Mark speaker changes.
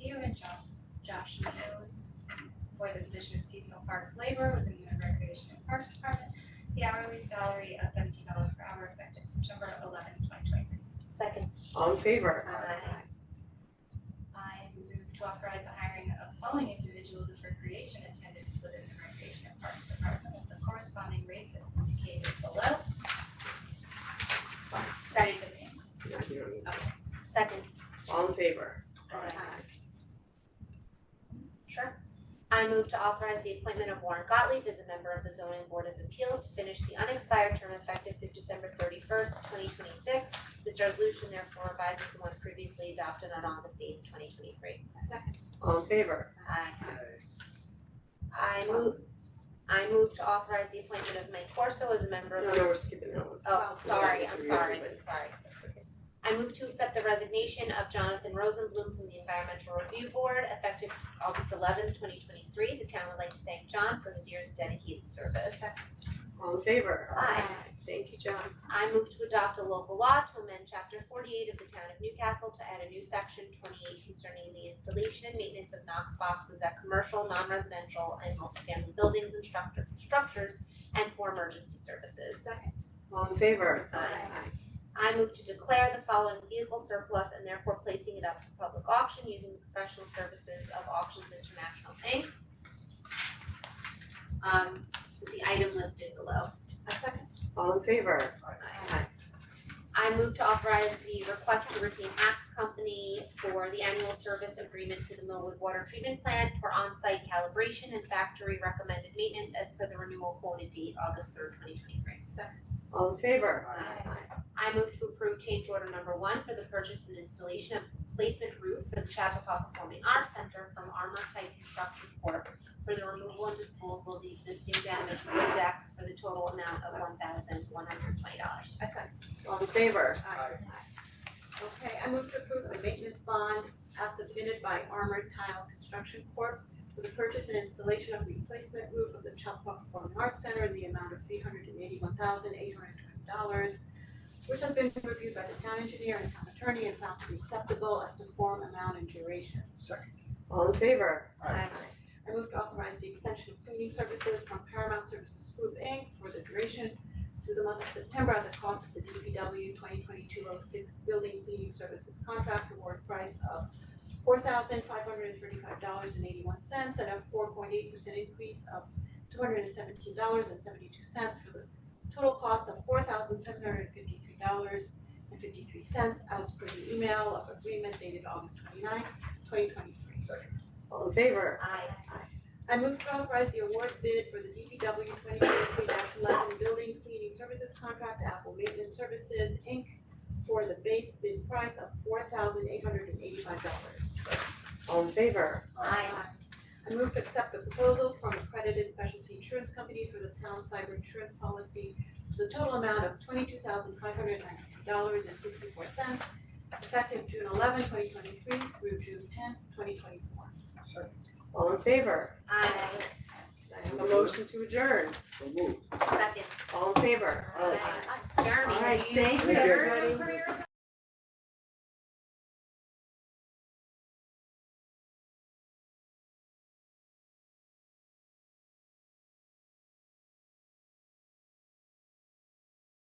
Speaker 1: you and Josh, Josh Meadows for the position of seasonal parks laborer within the Recreation and Parks Department. The hourly salary of seventeen dollars per hour effective September eleventh, twenty twenty three.
Speaker 2: Second.
Speaker 3: All in favor?
Speaker 1: Aye. I move to authorize the hiring of following individuals as recreation attendants within the Recreation and Parks Department at the corresponding rates as indicated below. Study the names.
Speaker 3: No, you don't need to.
Speaker 2: Second.
Speaker 3: All in favor?
Speaker 2: Sure. I move to authorize the appointment of Warren Gottlieb as a member of the zoning board of appeals to finish the unexpired term effective through December thirty first, twenty twenty six. This resolution therefore revises the one previously adopted on August eighth, twenty twenty three.
Speaker 1: Second.
Speaker 3: All in favor?
Speaker 2: Aye. I move, I move to authorize the appointment of Mike Corso as a member
Speaker 3: No,
Speaker 2: of the.
Speaker 3: no, we're skipping that one.
Speaker 2: Oh, sorry, I'm
Speaker 3: Yeah,
Speaker 2: sorry,
Speaker 3: everybody.
Speaker 2: sorry. I move to accept the resignation of Jonathan Rosenblum from the Environmental Review Board effective August eleventh, twenty twenty-three. The town would like to thank John for his years of dedicated service.
Speaker 3: All in favor?
Speaker 2: Aye.
Speaker 3: Thank you, John.
Speaker 2: I move to adopt a local law to amend chapter forty-eight of the town of Newcastle to add a new section twenty-eight concerning the installation and maintenance of Knox boxes at commercial, non-residential, and multifamily buildings and structure, structures and for emergency services.
Speaker 1: Second.
Speaker 3: All in favor?
Speaker 2: Aye. I move to declare the following vehicle surplus and therefore placing it up for public auction using the professional services of Auctions International Inc. Um, with the item listed below.
Speaker 1: A second.
Speaker 3: All in favor?
Speaker 2: Aye. I move to authorize the request to retain Act Company for the annual service agreement for the Millwood Water Treatment Plant for on-site calibration and factory recommended maintenance as per the renewal quoted date August third, twenty twenty-three.
Speaker 3: All in favor?
Speaker 2: I move to approve change order number one for the purchase and installation of placement roof for the Chappaqua Performing Arts Center from Armor Type Construction Corp. For the removal and disposal of the existing damaged wood deck for the total amount of one thousand one hundred twenty dollars.
Speaker 1: A second.
Speaker 3: All in favor?
Speaker 4: Okay, I move to approve the maintenance bond as submitted by Armored Tile Construction Corp. for the purchase and installation of replacement roof of the Chappaqua Performing Arts Center in the amount of three hundred and eighty-one thousand eight hundred and twenty dollars, which has been reviewed by the town engineer and town attorney and found to be acceptable as to form, amount, and duration.
Speaker 5: Second.
Speaker 3: All in favor?
Speaker 5: Aye.
Speaker 4: I move to authorize the extension of cleaning services from Paramount Services Group Inc. for the duration through the month of September at the cost of the DPW twenty twenty-two oh six building cleaning services contract award price of four thousand five hundred and thirty-five dollars and eighty-one cents and a four point eight percent increase of two hundred and seventeen dollars and seventy-two cents for the total cost of four thousand seven hundred and fifty-three dollars and fifty-three cents as per the email of agreement dated August 29, twenty-three.
Speaker 5: Second.
Speaker 3: All in favor?
Speaker 2: I
Speaker 4: I move to authorize the award bid for the DPW twenty twenty-three eleven building cleaning services contract to Apple Maintenance Services Inc. for the base bid price of four thousand eight hundred and eighty-five dollars.
Speaker 3: All in favor?
Speaker 2: I
Speaker 4: I move to accept the proposal from accredited specialty insurance company for the town cyber insurance policy for the total amount of twenty-two thousand five hundred ninety-three dollars and sixty-four cents effective June 11, 2023, through June 10, twenty twenty-four.
Speaker 5: Second.
Speaker 3: All in favor?
Speaker 2: I
Speaker 3: I have a motion to adjourn.
Speaker 5: So moved.
Speaker 2: second.
Speaker 3: All in favor?
Speaker 2: Aye. Jeremy,
Speaker 3: All right,
Speaker 2: you
Speaker 3: thank you,
Speaker 2: consider
Speaker 3: everybody.
Speaker 2: career